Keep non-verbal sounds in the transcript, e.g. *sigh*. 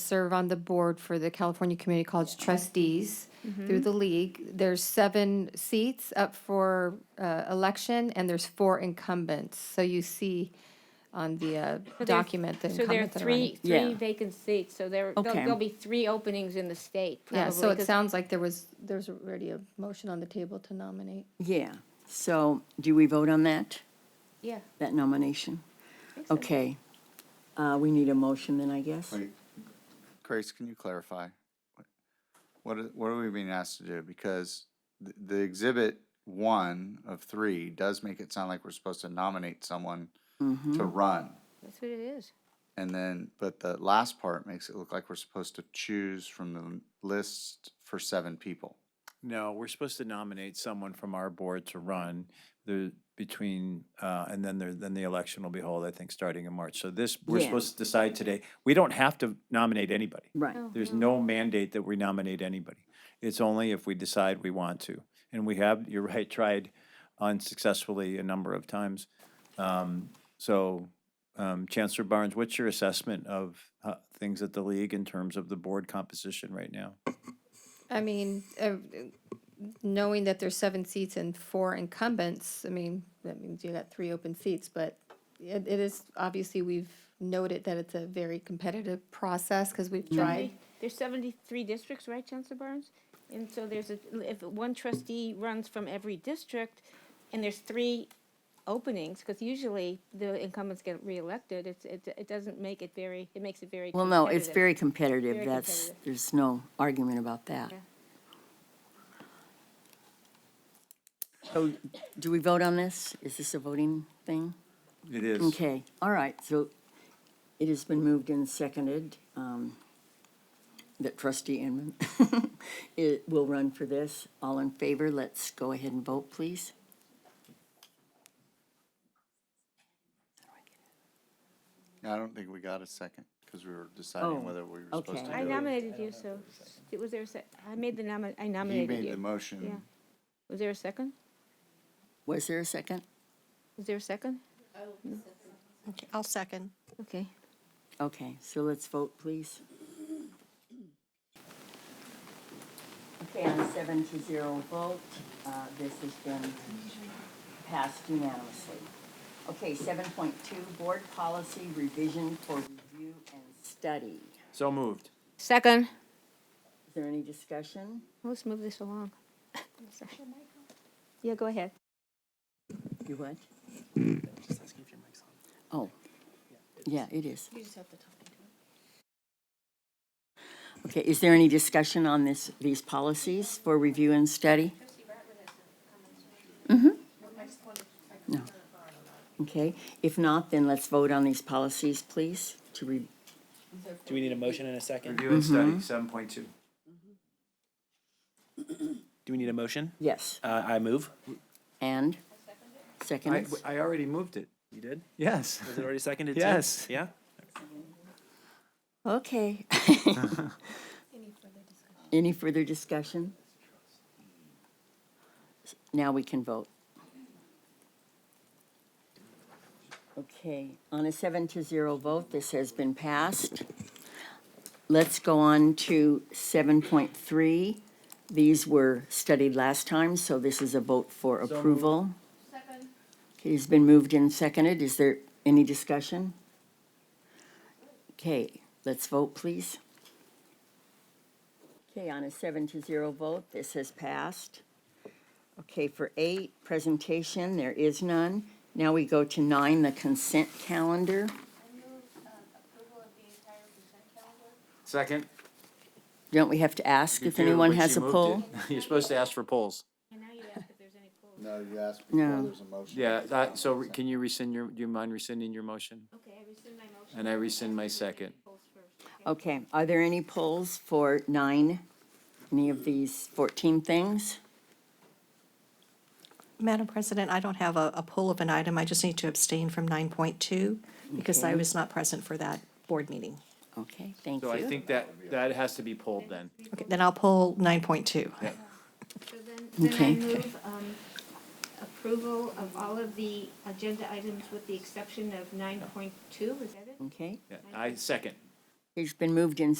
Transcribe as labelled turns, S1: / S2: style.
S1: serve on the board for the California Community College trustees
S2: Mm-hmm.
S1: through the league. There's seven seats up for uh, election, and there's four incumbents. So you see on the uh,
S2: So there-
S1: document the
S2: So there are
S1: incumbents that are
S2: three,
S1: running.
S2: three
S3: Yeah.
S2: vacant seats, so there, there'll
S3: Okay.
S2: there'll be three openings in the state, probably.
S1: Yeah, so it
S2: 'cause-
S1: sounds like there was, there's already a motion on the table to nominate.
S3: Yeah, so do we vote on that,
S2: Yeah.
S3: that nomination?
S2: I think so.
S3: Okay, Uh, we need a motion then, I guess?
S4: Wait, Grace, can you clarify? What, are- what are we being asked to do? Because the, the exhibit one of three does make it sound like we're supposed to nominate someone
S2: Mm-hmm.
S4: to run.
S2: That's what it is.
S4: And then, but the last part makes it look like we're supposed to choose from the list for seven people.
S5: No, we're supposed to nominate someone from our board to run the, between, uh, and then there, then the election will be held, I think, starting in March. So this, we're
S3: Yeah.
S5: supposed to decide today. We don't have to nominate anybody.
S3: Right,
S2: Oh.
S5: There's no mandate that we nominate anybody. It's only if we decide we want to. And we have, *laughs* you're right, tried unsuccessfully a number of times. Um, So um, Chancellor Barnes, what's your assessment of uh, things at the league in terms of the board composition right now?
S1: I mean, uh, knowing that there's seven seats and four incumbents, I mean, that means you got three open seats, but it, it is, obviously, we've noted that it's a very competitive process, because we've tried.
S2: There's seventy-three districts, right, Chancellor Barnes? And so there's a, if one trustee runs from every district, and there's three openings, because usually the incumbents get reelected, it's, it, it doesn't make it very, it makes it very
S3: well, no, it's
S2: competitive.
S3: very competitive,
S2: Very
S3: that's,
S2: competitive.
S3: there's no argument about that. So, do we vote on this? Is this a voting thing?
S5: It is.
S3: Okay, all right, so it has been moved and seconded um, that trustee Inman *laughs* it will run for this. All in favor, let's go ahead and vote, please.
S4: I don't think we got a second because we were deciding
S3: Oh,
S4: whether we were supposed
S3: okay.
S4: to
S2: I
S4: do it.
S2: nominated you, so, was there a sec, I made the nomi, I
S4: He
S2: nominated
S4: made the
S2: you. Yeah.
S4: motion.
S2: Was there a second?
S3: Was there a second?
S2: Was there a second?
S6: Okay, I'll second.
S2: Okay.
S3: Okay, so let's vote, please. Okay, on a seven to zero vote, uh, this has been passed unanimously. Okay, seven point two, board policy revision for review and study.
S5: So moved.
S2: Second.
S3: Is there any discussion?
S2: Let's move this along. *laughs* Sorry. Yeah, go ahead.
S3: You what? Oh, yeah, it is.
S6: You just have to talk.
S3: Okay, is there any discussion on this, these policies for review and study? Mm-hmm. No. Okay, if not, then let's vote on these policies, please, to re,
S7: Do we need a motion and a second?
S5: Review and study, seven point two.
S7: Do we need a motion?
S3: yes,
S7: Uh, I move.
S3: and?
S5: I,
S3: Seconds?
S5: I already moved it.
S7: You did?
S5: Yes.
S7: Was it already seconded? too?
S5: Yes.
S7: Yeah?
S3: *laughs* Okay. Any further discussion? Now we can vote. Okay, on a seven to zero vote, this has been passed. Let's go on to seven point three. These were studied last time, so this is a vote for approval. Okay, It's been moved and seconded. Is there any discussion? Okay, let's vote, please. Okay, on a seven to zero vote, this has passed. Okay, for eight, presentation, there is none. Now we go to nine, the consent calendar.
S5: Second.
S3: Don't we have to ask
S5: You
S3: if
S5: do,
S3: anyone
S5: but
S3: has
S5: she
S3: a
S5: moved
S3: poll?
S5: it. *laughs* You're supposed to ask for polls.
S4: No, you asked
S3: before No.
S4: there's a motion.
S5: Yeah, that, so re- can you rescind your, do you mind rescinding your motion?
S2: Okay, I rescind my motion.
S5: And I rescind my second.
S3: Okay, are there any polls for nine? Any of these 14 things?
S6: Madam President, I don't have a, a pull of an item. I just need to abstain from 9.2 because I was not present for that board meeting.
S3: Okay, thank
S5: So I
S3: you.
S5: think that, that has to be polled then.
S6: Okay, then I'll pull 9.2.
S8: So then, then I
S3: Okay.
S8: move um, approval of all of the agenda items with the exception of nine point two, is that it?
S3: Okay,
S5: Yeah, I second.
S3: it's been moved and